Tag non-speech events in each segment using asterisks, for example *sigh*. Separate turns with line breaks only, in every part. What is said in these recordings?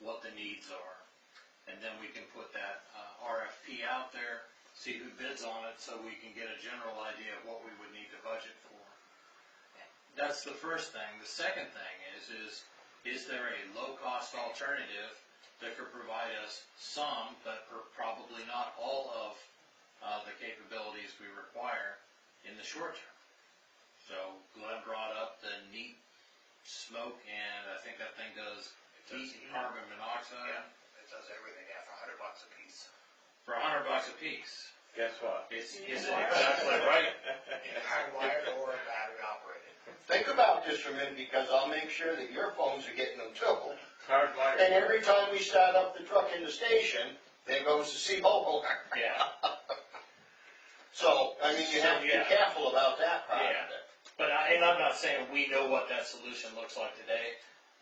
what the needs are. And then we can put that uh, RFP out there, see who bids on it, so we can get a general idea of what we would need to budget for. That's the first thing. The second thing is, is, is there a low-cost alternative that could provide us some, but per- probably not all of uh, the capabilities we require in the short term? So Glenn brought up the neat smoke, and I think that thing does heat and carbon monoxide.
Yeah, it does everything, yeah, for a hundred bucks a piece.
for a hundred bucks a piece.
Guess what?
It's,
Yeah.
is it exactly right?
*laughs* Hardwired or battery operated.
Think about this for a minute, because I'll make sure that your phones are getting them too.
Hard life.
And every time we start up the truck in the station, there goes the sea hole.
Yeah,
So, I mean, you have to be
Yeah.
careful about that part of
Yeah.
it.
but I, and I'm not saying we know what that solution looks like today,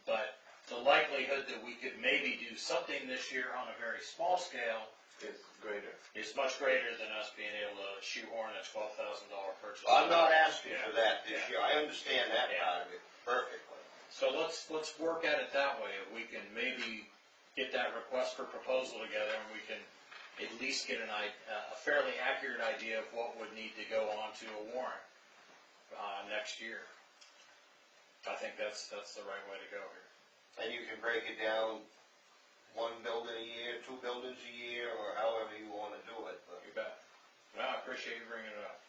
but the likelihood that we could maybe do something this year on a very small scale
It's greater.
is much greater than us being able to shoehorn a twelve thousand dollar purchase.
I'm not asking for that this year, I understand that
Yeah.
part of it perfectly.
So let's, let's work at it that way, if we can maybe get that request for proposal together, and we can at least get an i- uh, a fairly accurate idea of what would need to go on to a warrant, uh, next year. I think that's, that's the right way to go here.
And you can break it down, one building a year, two buildings a year, or however you wanna do it, but.
You bet. Well, I appreciate you bringing it up.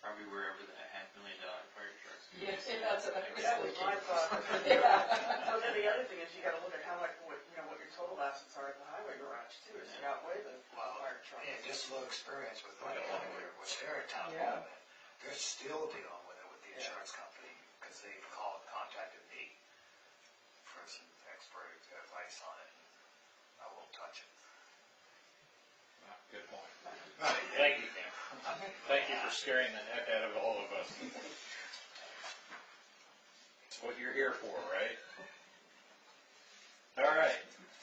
Probably wherever the half million dollar fire trucks.
Yeah, that's, that was my
*laughs*
*laughs*
thought, yeah.
So then the other thing is you gotta look at how much, what, you know, what your total assets are at the highway garage too, does it outweigh the
Well,
fire truck?
Yeah, just a little experience with what happened with Tarrytown,
Yeah.
they're still dealing with it with the insurance company, because they called, contacted me for some expert advice on it, I won't touch it.
Yeah, Good point. Thank you, Ken. Thank you for scaring the heck out of all of us. It's what you're here for, right? All right,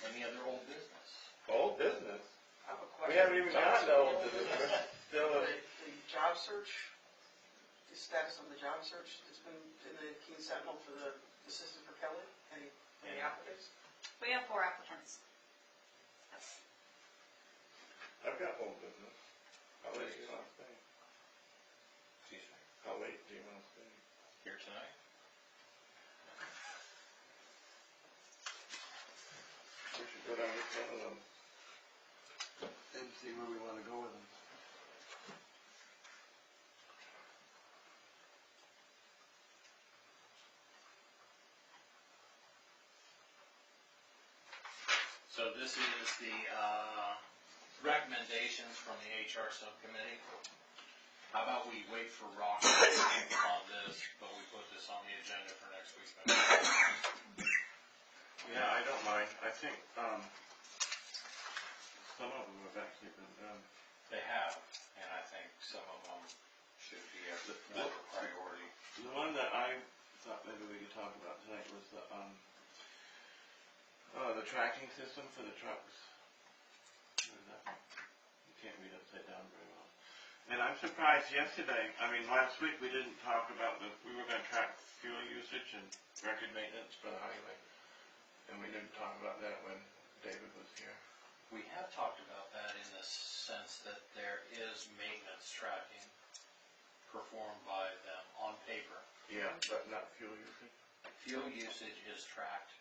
any other old business?
Old business.
I have a
We
question.
haven't even gotten to old business. Still,
The,
a-
the job search, the status on the job search that's been in the Keene Sentinel for the assistant for Kelly, any, any applicants?
We have four applicants.
I've got old business. I'll wait till you want to say. I'll wait till you want to say.
Here tonight?
We should go down with one of them.
And see where we wanna go with them.
So this is the, uh, recommendations from the HR subcommittee. How about we wait for Rock on this, but we put this on the agenda for next week's meeting?
Yeah, I don't mind. I think, um, some of them have actually been done.
They have, and I think some of them should be a more priority.
The one that I thought maybe we could talk about tonight was the, um, uh, the tracking system for the trucks. What is that? You can't read upside down very well. And I'm surprised yesterday, I mean, last week we didn't talk about the, we were gonna track fuel usage and record maintenance for the highway. And we didn't talk about that when David was here.
We have talked about that in the sense that there is maintenance tracking performed by them on paper.
Yeah. But not fuel usage.
Fuel usage is tracked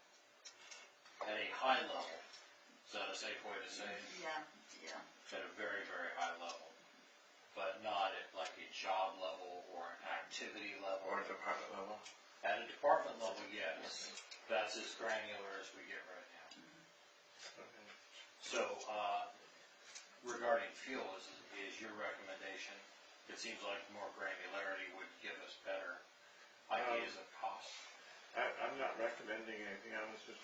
at a high level. Is that a safe way to say it?
Yeah, yeah.
At a very, very high level, but not at like a job level or an activity level.
Or department level.
At a department level, yes. That's as granular as we get right now.
Okay.
So, uh, regarding fuel, is, is your recommendation, it seems like more granularity would give us better ideas of cost.
I, I'm not recommending anything, I was just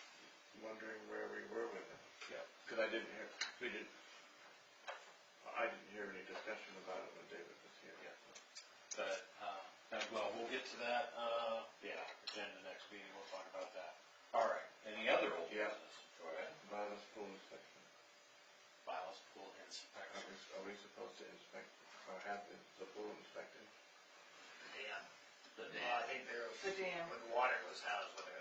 wondering where we were with it.
Yep.
Because I didn't hear, we didn't, I didn't hear any discussion about it when David was here.
Yeah. But, uh, and well, we'll get to that, uh, yeah, agenda next meeting, we'll talk about that. All right, any other old
Yeah.
business? Go ahead.
Violence pool inspection,
Violence pool
are we,
inspection.
are we supposed to inspect, or have the the pool inspected?
Yeah.
The
Well,
dam.
I think they're,
The dam.
when water goes down is when